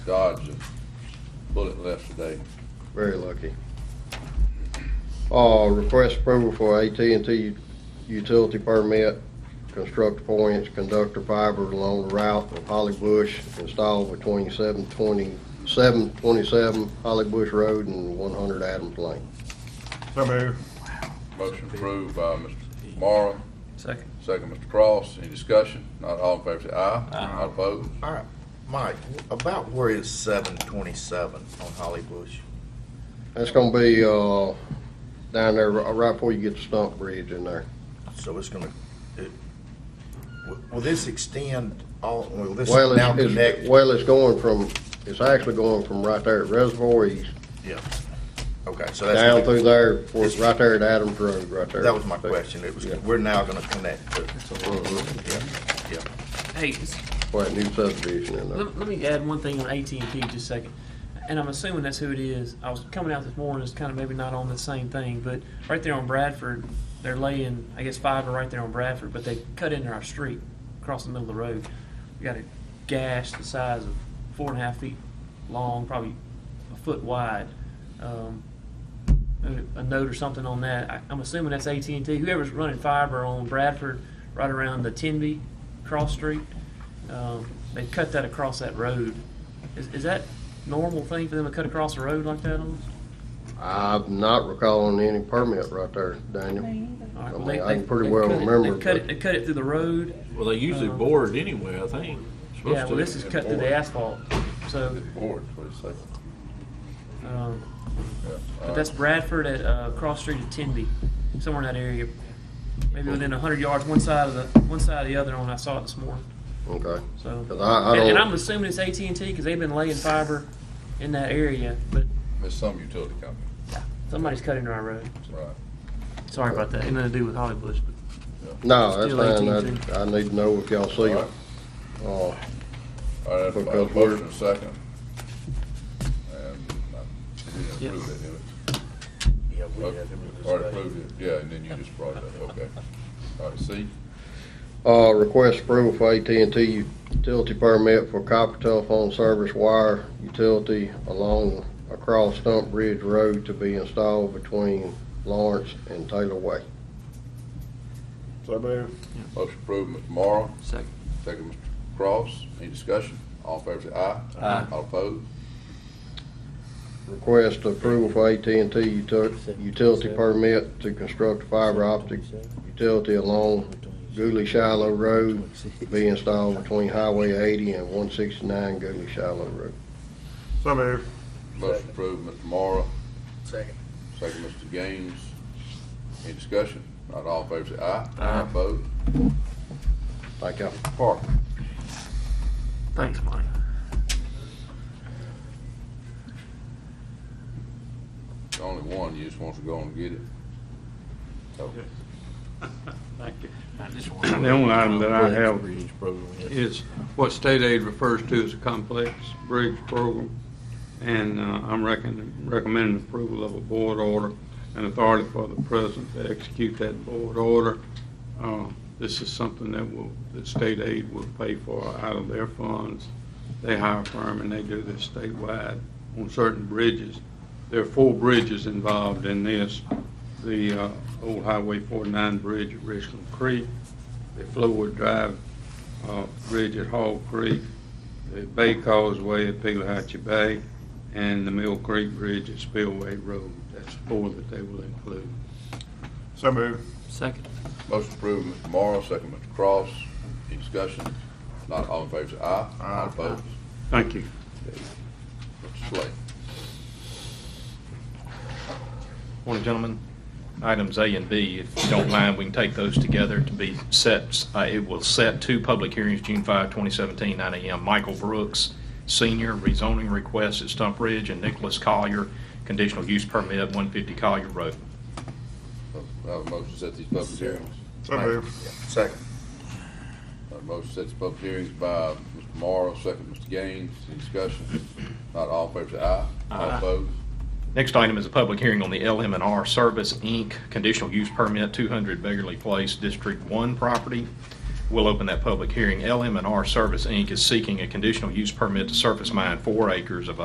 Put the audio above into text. dodge a bullet left today. Very lucky. Uh, request approval for AT&T utility permit, construct points, conductor fiber along the route of Holly Bush, installed between 720 727 Holly Bush Road and one hundred Adams Lane. So move. Motion approved by Mr. Morrow, Second. second Mr. Cross. Any discussion? Not all in favor, say aye. Not opposed. All right, Mike, about where is seven twenty-seven on Holly Bush? That's gonna be, uh, down there, ri- right before you get the stump bridge in there. So it's gonna, it, will- will this extend all, will this Well, now it's- connect? it's, well, it's going from, it's actually going from right there at Reservoir East, Yeah. Okay, so that's. down through there, where it's right there at Adams Road, right there. That was my question. It was, Yeah. we're now gonna connect to, Mhm. yeah, yeah. Hey, s- Quite a new subdivision in there. let, let me add one thing on AT&T just a second. And I'm assuming that's who it is. I was coming out this morning, it's kind of maybe not on the same thing, but right there on Bradford, they're laying, I guess, fiber right there on Bradford, but they cut into our street across the middle of the road. We got a gash the size of four and a half feet long, probably a foot wide. Um, a- a note or something on that. I, I'm assuming that's AT&T. Whoever's running fiber on Bradford, right around the Tenby cross street, um, they cut that across that road. Is, is that normal thing for them to cut across a road like that? On? I'm not recalling any permit right there, Daniel. All right, I well, mean, they- I can they- pretty they well cut it- remember, They cut but- it, they cut it through the road. Well, they usually Uh-huh. board anyway, I think. Supposed Yeah, well, to. this is cut through the asphalt. So, Board, what do you say? um, Yeah. but that's Bradford at, uh, cross street at Tenby, somewhere in that area. Maybe within hundred yards, one side of the, one side of the other one. I saw it this morning. Okay. So, 'Cause I- I and, and don't- I'm assuming it's AT and T because they've been laying fiber in that area, but It's some utility company. somebody's cut into our road. Right. Sorry about that. Ain't nothing to do with Holly Bush, but No, that's Still fine. AT&T. I, I need to know if y'all see it. Alright. Uh, All right, I have a Because we're- motion and a second. And I- we didn't Yep. approve it, did we? Yeah, we had Okay, it in the Already discussion. approved it, yeah, and then you just brought it up, okay. All right, C, uh, request approval for AT&T utility permit for copper telephone service wire utility along across Stump Bridge Road to be installed between Lawrence and Taylor Way. So move. motion approved, Mr. Morrow, second. second, Mr. Cross, any discussion? All in favor, say aye. Aye. All opposed? Request approval for at and t utility permit to construct fiber optic utility along Gooley Shiloh Road to be installed between Highway 80 and 169 Gooley Shiloh Road. So move. Motion approved, Mr. Morrow, Second. second, Mr. Gaines, any discussion? Not all in favor, say aye. Aye. Opposed? Thank y'all. Parker, Thanks, Mike. the only one, you just wants to go and get it. So, The The only item that I have is is what state aid refers to as a complex bridge program. And uh, I'm reckon- recommending approval of a board order and authority for the president to execute that board order. Uh, This is something that will, that state aid will pay for out of their funds. They hire a firm and they do this statewide on certain bridges. There are four bridges involved in this. The uh, old Highway 49 bridge at Richland Creek, the Flowood Drive uh, Bridge at Hall Creek, the Bay Causeway at Peleachi Bay, and the Mill Creek Bridge at Spillway Road. That's four that they will include. So move. Second. Motion approved, Mr. Morrow, second, Mr. Cross. Any discussion? Not all in favor, say aye. All opposed? Thank you. Mr. Slay. Morning, gentlemen. Items A and B, if you don't mind, we can take those together to be set, uh, it will set two public hearings, June 5, 2017, 9 a.m. Michael Brooks, senior, rezoning request at Stump Ridge, and Nicholas Collier, conditional use permit, 150 Collier Road. I have a motion to set these public hearings. So move. Second. I have a motion to set these public hearings by Mr. Morrow, second, Mr. Gaines. Any discussion? Not all in favor, say aye. All opposed? Next item is a public hearing on the lm and R Service, Inc., conditional use permit, 200 Beggarly Place, District 1 property. We'll open that public hearing. LM and R Service, Inc. is seeking a conditional use permit to surface mine four acres of